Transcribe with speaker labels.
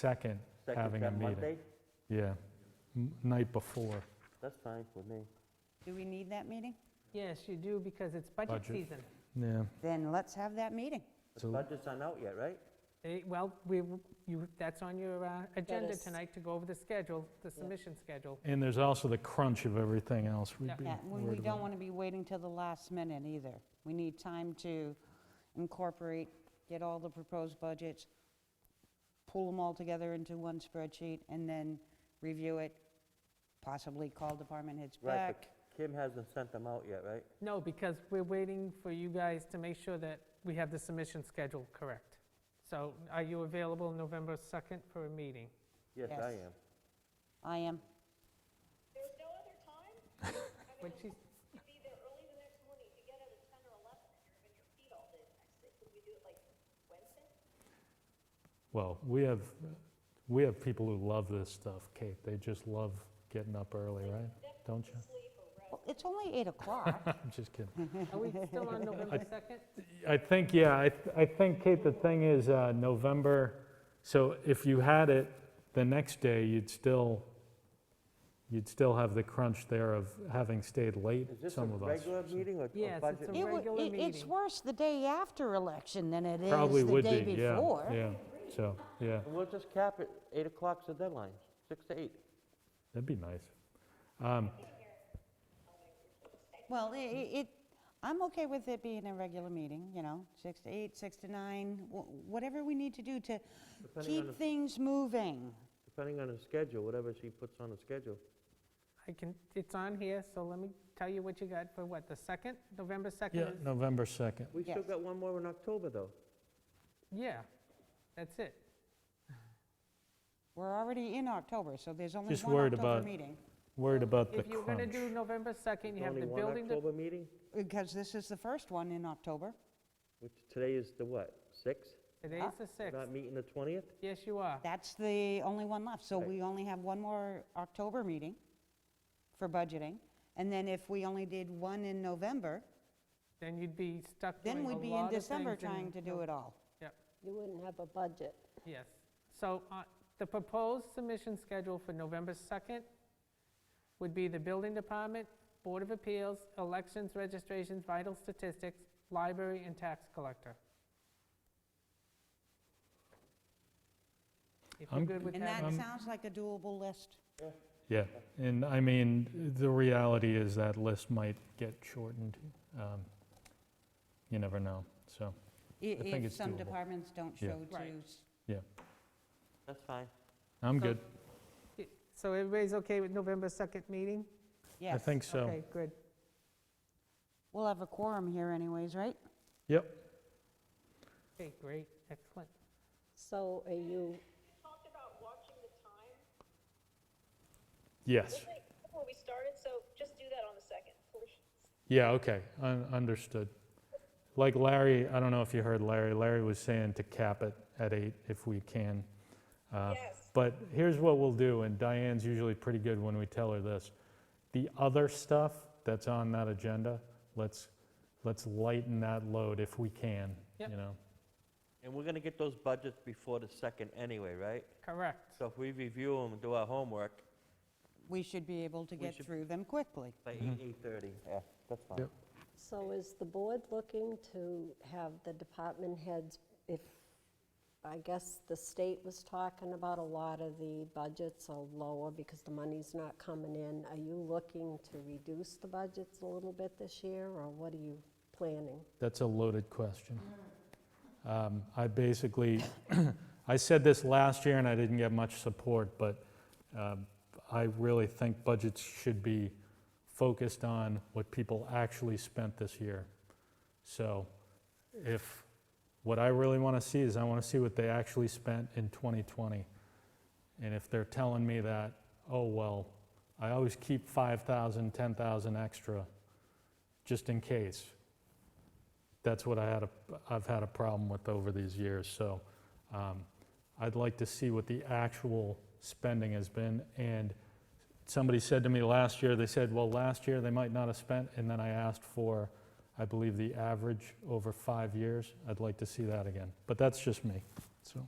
Speaker 1: second,
Speaker 2: Second,
Speaker 1: having a
Speaker 2: that
Speaker 1: meeting.
Speaker 2: Monday?
Speaker 1: Yeah, m- night before.
Speaker 2: That's fine with me.
Speaker 3: Do we need that meeting?
Speaker 4: Yes, you do, because it's budget
Speaker 1: Budget.
Speaker 4: season.
Speaker 1: Yeah,
Speaker 3: Then let's have that meeting.
Speaker 2: The
Speaker 1: So-
Speaker 2: budget's not out yet, right?
Speaker 4: Eh, Well, we, w- you, that's on your uh, agenda
Speaker 5: is-
Speaker 4: tonight to go over the schedule, the submission schedule.
Speaker 1: and there's also the crunch of everything else. We'd
Speaker 4: Yeah.
Speaker 1: be
Speaker 3: Yeah, we- we
Speaker 1: worried
Speaker 3: don't
Speaker 1: about-
Speaker 3: want to be waiting till the last minute either. We need time to incorporate, get all the proposed budgets, pull them all together into one spreadsheet, and then review it, possibly call department heads
Speaker 2: Right,
Speaker 3: back.
Speaker 2: but Kim hasn't sent them out yet, right?
Speaker 4: No, because we're waiting for you guys to make sure that we have the submission schedule correct. So are you available November 2nd for a meeting?
Speaker 2: Yes, I
Speaker 3: Yes.
Speaker 2: am.
Speaker 3: I am,
Speaker 6: There's no other time? I
Speaker 4: When
Speaker 6: mean,
Speaker 4: she's,
Speaker 6: you could be there early the next morning, if you get out at ten or eleven, and you're in your feet all day the next day, could we do it like Wednesday?
Speaker 1: Well, we have, we have people who love this stuff, Kate. They just love getting up early, right? Don't you?
Speaker 6: Sleep or rest?
Speaker 3: well, it's only 8 o'clock.
Speaker 1: I'm just kidding.
Speaker 4: are we still on November 2nd?
Speaker 1: I think, yeah, I, th- I think, Kate, the thing is, uh, November, so if you had it the next day, you'd still, you'd still have the crunch there of having stayed late,
Speaker 2: Is this a
Speaker 1: some of us.
Speaker 2: regular meeting or
Speaker 4: Yes,
Speaker 2: a
Speaker 4: it's
Speaker 2: budget?
Speaker 4: a
Speaker 3: It
Speaker 2: meeting?
Speaker 3: wa-
Speaker 4: regular
Speaker 3: it- It's
Speaker 4: meeting.
Speaker 3: worse the day after election than it is
Speaker 1: Probably
Speaker 3: the
Speaker 1: would
Speaker 3: day
Speaker 1: be, yeah,
Speaker 3: before.
Speaker 1: yeah, so, yeah,
Speaker 2: We'll just cap it, 8 o'clock's the deadline, 6 to 8.
Speaker 1: that'd be nice. Um,
Speaker 3: Well, i- i- it, I'm okay with it being a regular meeting, you know, 6 to 8, 6 to 9, wh- whatever we need to do to
Speaker 2: Depending on
Speaker 3: keep things moving.
Speaker 2: Depending on the schedule, whatever she puts on the schedule.
Speaker 4: I can, it's on here, so let me tell you what you got for what, the 2nd? November 2nd?
Speaker 1: Yeah,
Speaker 4: is-
Speaker 1: November 2nd.
Speaker 2: We still
Speaker 3: Yes.
Speaker 2: got one more in October, though.
Speaker 4: Yeah, that's it.
Speaker 3: We're already in October, so there's only
Speaker 1: Just
Speaker 3: one
Speaker 1: worried
Speaker 3: October
Speaker 1: about
Speaker 3: meeting.
Speaker 1: Worried about the
Speaker 4: If you're going to
Speaker 1: crunch.
Speaker 4: do November 2nd, you have
Speaker 2: Only
Speaker 4: the
Speaker 2: one
Speaker 4: building, de-
Speaker 2: October meeting,
Speaker 3: Because this is the first one in October.
Speaker 2: which today is the what, 6?
Speaker 4: today's the
Speaker 2: We're
Speaker 4: 6th.
Speaker 2: Not meeting the 20th?
Speaker 4: Yes, you are.
Speaker 3: That's the only one left. So
Speaker 2: Right.
Speaker 3: we only have one more October meeting for budgeting. And then if we only did one in November,
Speaker 4: Then you'd be stuck doing
Speaker 3: then
Speaker 4: a
Speaker 3: we'd be
Speaker 4: lot
Speaker 3: in
Speaker 4: of
Speaker 3: December
Speaker 4: things in-
Speaker 3: trying to do it all.
Speaker 4: Yep,
Speaker 5: You wouldn't have a budget.
Speaker 4: yes. So uh, the proposed submission schedule for November 2nd would be the Building Department, Board of Appeals, Elections, Registrations, Vital Statistics, Library, and Tax Collector. If you're
Speaker 1: I'm-
Speaker 4: good with
Speaker 3: And that
Speaker 4: that, um,
Speaker 3: sounds like a doable list.
Speaker 1: Yeah, and I mean, the reality is that list might get shortened. Um, You never know, so,
Speaker 3: I-
Speaker 1: I think
Speaker 3: If
Speaker 1: it's
Speaker 3: some
Speaker 1: doable.
Speaker 3: departments don't
Speaker 1: Yeah.
Speaker 3: show to
Speaker 4: Right.
Speaker 3: s-
Speaker 2: That's fine.
Speaker 1: I'm
Speaker 4: So-
Speaker 1: good.
Speaker 4: so everybody's okay with November 2nd meeting?
Speaker 1: I
Speaker 3: Yes.
Speaker 1: think so.
Speaker 4: Okay, good.
Speaker 3: We'll have a quorum here anyways, right?
Speaker 1: Yep,
Speaker 4: Okay, great, excellent.
Speaker 5: So are you,
Speaker 6: We talked about watching the time,
Speaker 1: yes.
Speaker 6: didn't they, before we started, so just do that on the second, please.
Speaker 1: Yeah, okay, un- understood. Like Larry, I don't know if you heard Larry, Larry was saying to cap it at eight if we can. Uh,
Speaker 6: Yes.
Speaker 1: But here's what we'll do, and Diane's usually pretty good when we tell her this. The other stuff that's on that agenda, let's, let's lighten that load if we can, you
Speaker 4: Yep.
Speaker 1: know?
Speaker 2: And we're going to get those budgets before the 2nd anyway, right?
Speaker 4: Correct.
Speaker 2: So if we review them, do our homework
Speaker 3: We should be able to
Speaker 2: We
Speaker 3: get
Speaker 2: should-
Speaker 3: through them quickly.
Speaker 2: by 8, 8:30. Yeah, that's fine.
Speaker 1: Mm-hmm. Yep.
Speaker 5: so is the board looking to have the department heads, if, I guess the state was talking about a lot of the budgets are lower because the money's not coming in. Are you looking to reduce the budgets a little bit this year, or what are you planning?
Speaker 1: That's a loaded question. Um, I basically, I said this last year and I didn't get much support, but um, I really think budgets should be focused on what people actually spent this year. So if, what I really want to see is I want to see what they actually spent in 2020. And if they're telling me that, oh, well, I always keep 5,000, 10,000 extra, just in case that's what I had a, I've had a problem with over these years. So um, I'd like to see what the actual spending has been. And somebody said to me last year, they said, well, last year they might not have spent. And then I asked for, I believe, the average over five years. I'd like to see that again. But that's just me. So